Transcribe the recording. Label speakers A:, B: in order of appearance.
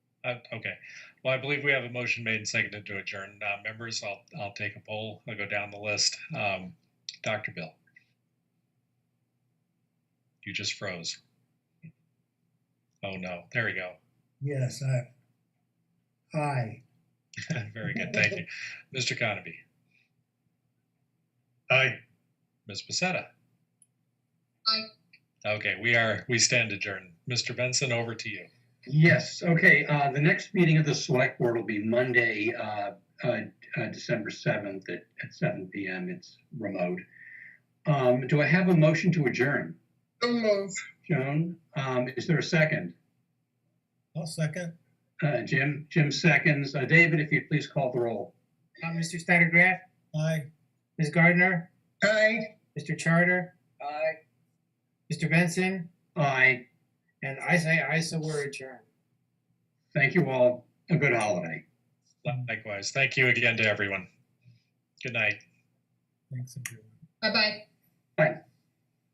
A: Uh, Okay. Well, I believe we have a motion made and seconded to adjourn. Uh, Members, I'll, I'll take a poll. I'll go down the list. Um, Dr. Bill? You just froze. Oh, no. There we go.
B: Yes, I, aye.
A: Very good. Thank you. Mr. Conaby?
C: Aye.
A: Ms. Pacetta?
D: Aye.
A: Okay, we are, we stand adjourned. Mr. Benson, over to you.
C: Yes, okay, uh, the next meeting of the select board will be Monday, uh, uh, uh, December seventh at, at seven P M. It's remote. Um, do I have a motion to adjourn?
D: So move.
C: Joan, um, is there a second?
B: I'll second.
C: Uh, Jim, Jim seconds. Uh, David, if you'd please call the roll.
E: Uh, Mr. Snyder Graf,
B: Aye.
E: Ms. Gardner,
D: Aye.
E: Mr. Charter,
D: Aye.
E: Mr. Benson,
C: Aye,
E: and I say I so we're adjourned.
C: thank you all. A good holiday.
A: Likewise. Thank you again to everyone. Good night.
B: Thanks, everyone.
D: Bye-bye.